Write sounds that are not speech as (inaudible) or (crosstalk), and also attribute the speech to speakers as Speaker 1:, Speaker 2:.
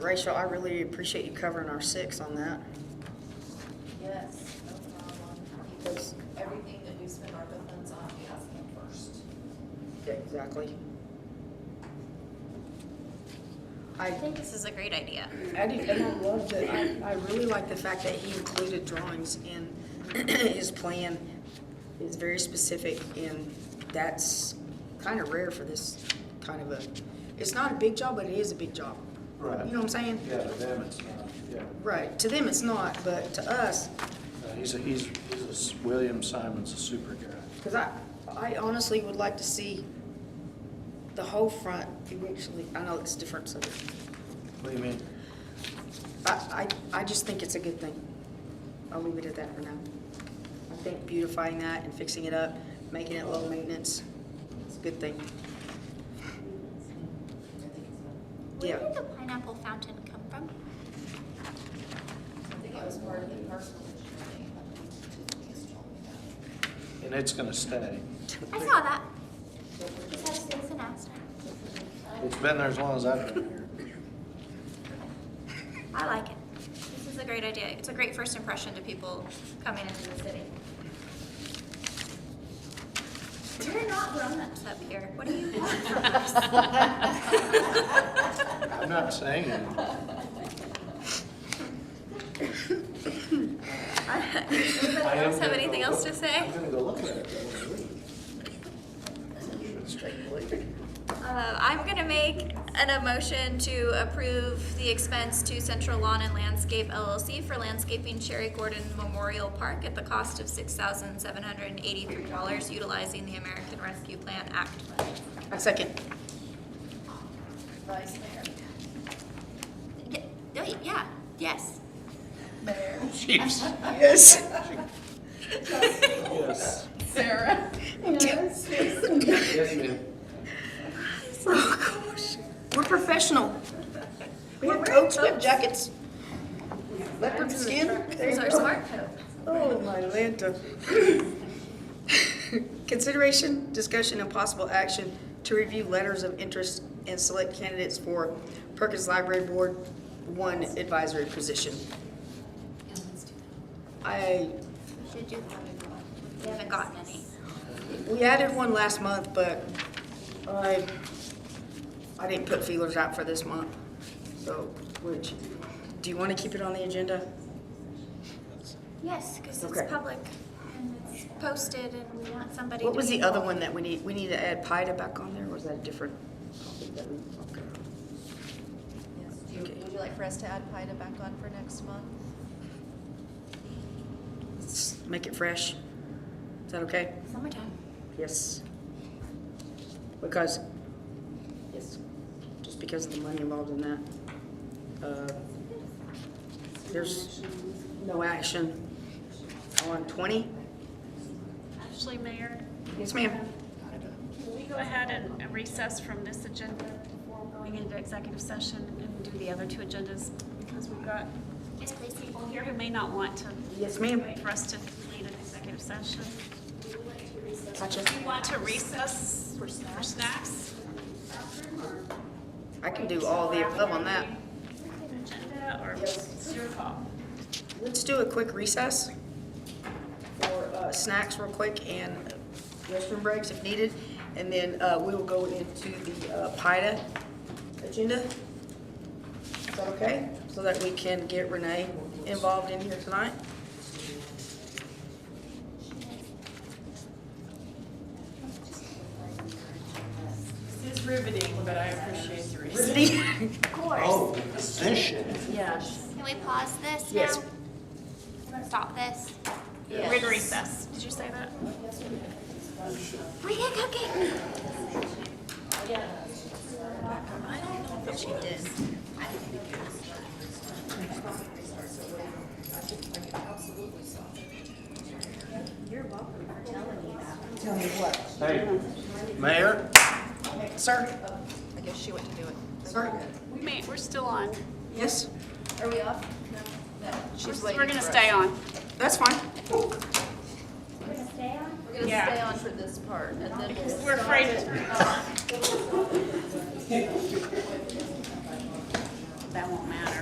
Speaker 1: Rachel, I really appreciate you covering our six on that.
Speaker 2: Yes, no problem, because everything that we spend our funds on, we ask them first.
Speaker 1: Exactly. I,
Speaker 3: I think this is a great idea.
Speaker 1: I do, and I love that, I, I really like the fact that he included drawings in (clears throat) his plan. It's very specific and that's kind of rare for this kind of a, it's not a big job, but it is a big job.
Speaker 4: Right.
Speaker 1: You know what I'm saying?
Speaker 4: Yeah, to them it's not, yeah.
Speaker 1: Right, to them it's not, but to us,
Speaker 4: No, He's, a- he's, he's, a s- William Simon's a super guy.
Speaker 1: Because I, I honestly would like to see the whole front eventually, I know it's different, so,
Speaker 4: What do you mean?
Speaker 1: I, I, I just think it's a good thing. I'll leave it at that for now. I think beautifying that and fixing it up, making it low maintenance, it's a good thing.
Speaker 2: I think it's,
Speaker 3: Where
Speaker 1: Yeah.
Speaker 3: did the pineapple fountain come from?
Speaker 2: I think it was part of the personal insurance, I think Tiffany's told me that.
Speaker 4: And it's gonna stay.
Speaker 3: I saw that. Just had to say it's an accident.
Speaker 4: It's been there as long as I've been here.
Speaker 3: I like it. This is a great idea. It's a great first impression to people coming into the city. We're not grown-ups up here. What do you want (laughs) from us?
Speaker 4: I'm not saying it.
Speaker 3: Anybody else have anything else to say?
Speaker 4: I'm gonna go look at it. when we leave.
Speaker 3: Uh, I'm gonna make an emotion to approve the expense to Central Lawn and Landscape LLC for landscaping Cherry Gordon Memorial Park at the cost of six thousand seven hundred and eighty-three dollars utilizing the American Rescue Plan Act funds.
Speaker 1: A second.
Speaker 2: Vice Mayor,
Speaker 3: Y- y- Yeah, yes.
Speaker 2: Mayor,
Speaker 1: Yes.
Speaker 4: Yes.
Speaker 2: Sarah. Yes.
Speaker 4: Yes, ma'am.
Speaker 1: Oh, gosh. We're professional. We have coats, we have jackets. Leopard skin. There you
Speaker 3: There's our
Speaker 1: go.
Speaker 3: smart code.
Speaker 1: Oh, my Lanta. Consideration, discussion, and possible action to review letters of interest and select candidates for Perkins Library Board One advisory position. I,
Speaker 3: Should you We haven't gotten any.
Speaker 1: we added one last month, but I, I didn't put feelers out for this month. So, which, do you want to keep it on the agenda?
Speaker 3: Yes, because it's
Speaker 1: Okay.
Speaker 3: public and it's posted and we want somebody to
Speaker 1: What was
Speaker 3: be
Speaker 1: the other
Speaker 3: involved.
Speaker 1: one that we need, we need to add PIDA back on there, or was that a different? topic that we- okay.
Speaker 2: Do you, would you like for us to add PIDA back on for next month?
Speaker 1: Let's Make it fresh. Is that okay?
Speaker 3: Summertime.
Speaker 1: Yes. Because, yes, just because of the money involved in that. Uh, There's no action on twenty?
Speaker 5: Ashley Mayor,
Speaker 1: Yes, ma'am.
Speaker 5: can we go ahead and and recess from this agenda before going into executive session and do the other two agendas? Because we've got
Speaker 3: Yes, please.
Speaker 5: people here who may not want to.
Speaker 1: Yes, ma'am.
Speaker 5: Wait for us to complete an executive session.
Speaker 1: Gotcha.
Speaker 5: Do you want to recess for snacks?
Speaker 1: I can do all the above on that.
Speaker 5: Agenda, or it's your call?
Speaker 1: Let's do a quick recess for uh, snacks real quick and restroom breaks if needed. And then uh, we will go into the uh, PIDA agenda. Is that okay? So that we can get Renee involved in here tonight.
Speaker 6: This is riveting, but I appreciate the reason.
Speaker 3: Of course.
Speaker 4: Oh, position.
Speaker 6: Yes.
Speaker 3: Can we pause this now?
Speaker 1: Yes.
Speaker 3: Stop this.
Speaker 5: We're in recess. Did you say that?
Speaker 3: We can cook it.
Speaker 4: Hey, Mayor?
Speaker 1: Sir?
Speaker 2: I guess she went to do it.
Speaker 1: Sir?
Speaker 5: We may, we're still on.
Speaker 1: (laughs) Yes,
Speaker 2: Are we off? No. She's
Speaker 5: We're
Speaker 2: waiting.
Speaker 5: we're gonna
Speaker 2: for us.
Speaker 5: stay on.
Speaker 1: that's fine.
Speaker 2: We're gonna
Speaker 5: Yeah.
Speaker 2: stay on for this part and then we'll.
Speaker 5: We're afraid of.